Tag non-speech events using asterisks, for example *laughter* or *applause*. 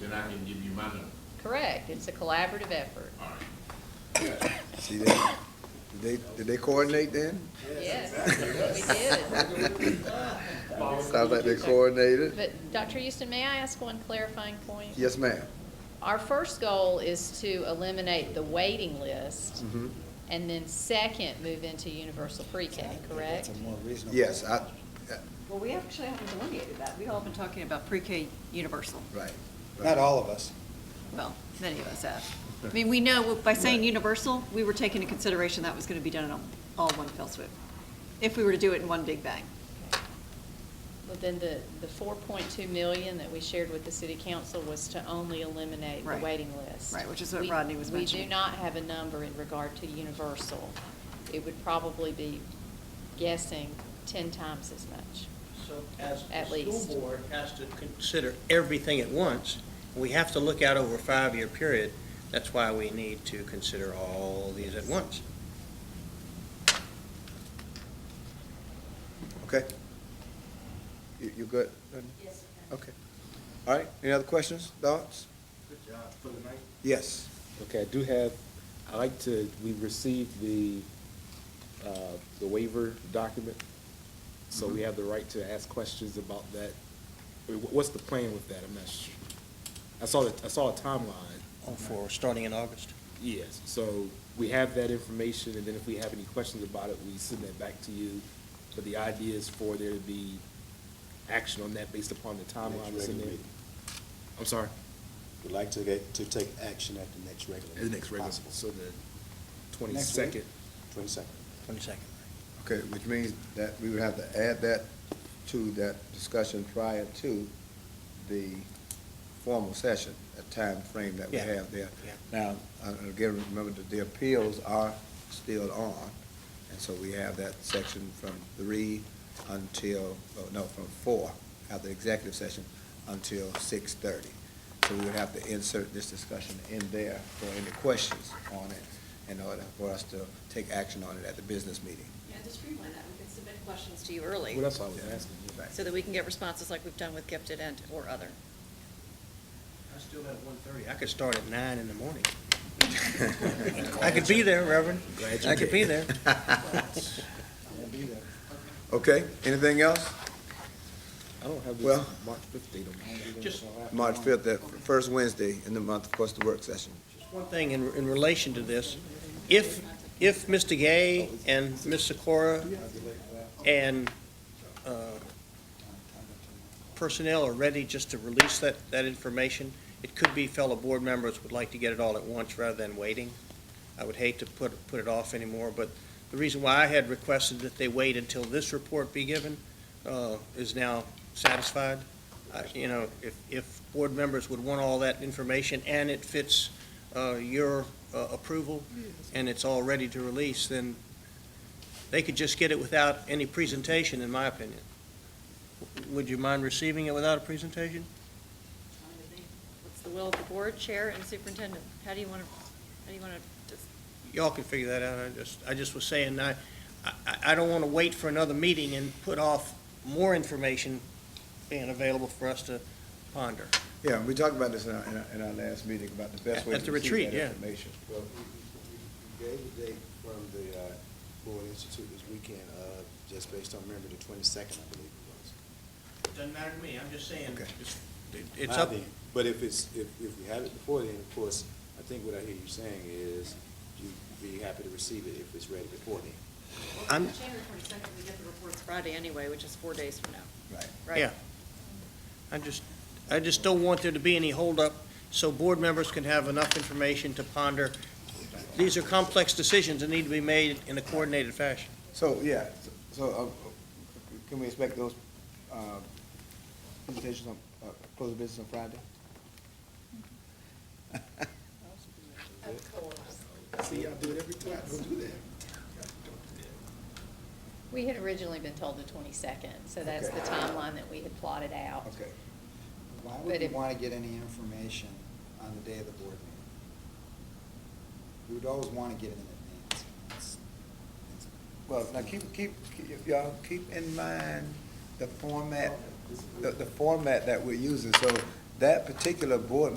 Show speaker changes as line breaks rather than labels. then I can give you my number.
Correct, it's a collaborative effort.
All right.
See that? Did they, did they coordinate then?
Yes, we did.
Sounds like they coordinated.
But Dr. Houston, may I ask one clarifying point?
Yes, ma'am.
Our first goal is to eliminate the waiting list
Mm-hmm.
Mhm.
and then second, move into universal pre-K, correct?
Yes, I,
Well, we actually haven't delineated that. We've all been talking about pre-K universal.
right.
Not all of us.
Well, many of us have. I mean, we know, by saying universal, we were taking into consideration that was going to be done in all one fell swoop, if we were to do it in one big bang.
But then the, the four point two million that we shared with the city council was to only eliminate the
Right.
waiting list.
Right, which is what
We-
Rodney was
We do
mentioning.
not have a number in regard to universal. It would probably be guessing ten times as much.
So as
At
the
least.
school board has to consider everything at once, we have to look out over a five-year period. That's why we need to consider all these at once.
Okay. You, you good? Yes. Okay. All right, any other questions, thoughts?
Good job for the night.
Yes.
Okay, I do have, I like to, we received the, uh, the waiver document, so we have the right to ask questions about that. I mean, wh- What's the plan with that? I'm not sure. I saw, the- I saw a timeline,
Oh, For, starting in August.
yes, so we have that information, and then if we have any questions about it, we send that back to you. But the idea is for there to be action on that based upon the timeline. that's in
regular
there.
meeting.
I'm sorry?
We'd like to get, to take action at the next regular.
The next regular,
possible.
so the twenty-second.
Twenty-second.
Twenty-second.
Okay, which means that we would have to add that to that discussion prior to the formal session, a time frame that we
Yeah.
have there.
Yeah.
Now, uh, again, remember that the appeals are still on, and so we have that section from three until, oh, no, from four, after the executive session, until six thirty. So we would have to insert this discussion in there for any questions on it in order for us to take action on it at the business meeting.
Yeah, just streamline that, we can submit questions to you early,
Well, that's what I was asking. yeah.
so that we can get responses like we've done with gifted and, or other.
I still have one-thirty. I could start at nine in the morning. *laughs* I could be there, Reverend.
Glad you
I could be
did.
there.
*laughs* Okay, anything else?
I don't have
Well-
this March fifth date on my.
Just-
March fifth, the first Wednesday in the month, of course, the work session.
One thing in, in relation to this, if, if Mr. Gay and Ms. Sikora and uh, personnel are ready just to release that, that information, it could be fellow board members would like to get it all at once rather than waiting. I would hate to put, put it off anymore, but the reason why I had requested that they wait until this report be given uh, is now satisfied. I- You know, if, if board members would want all that information and it fits uh, your uh, approval and it's all ready to release, then they could just get it without any presentation, in my opinion. Would you mind receiving it without a presentation?
What's the will of the board, chair, and superintendent? How do you want to, how do you want to,
Y'all can figure that out. I just, I just was saying, I, I, I don't want to wait for another meeting and put off more information being available for us to ponder.
Yeah, we talked about this in our, in our, in our last meeting, about the best way
At
to
the
receive
retreat,
that
yeah.
information.
Well, we, we, we gave the date from the, uh, Board Institute this weekend, uh, just based on, remember, the twenty-second, I believe it was.
Doesn't matter to me. I'm just saying,
Okay.
it's- it's
By
up.
then. But if it's, if, if we have it before then, of course, I think what I hear you saying is you'd be happy to receive it if it's ready before then.
I'm-
January twenty-second, we get the reports Friday anyway, which is four days from now,
Right.
right?
Yeah. I just, I just don't want there to be any holdup, so board members can have enough information to ponder. These are complex decisions that need to be made in a coordinated fashion.
So, yeah, so, uh, uh, can we expect those, uh, presentations on, uh, close of business on Friday?
We had originally been told the twenty-second, so that's
Okay.
the timeline that we had plotted out.
Okay.
Why
But
would you
if-
want to get any information on the day of the board meeting? You would always want to get it in advance. It's- it's-
Well, now, keep, keep, keep- y'all, keep in mind the format, the, the format that we're using. So that particular board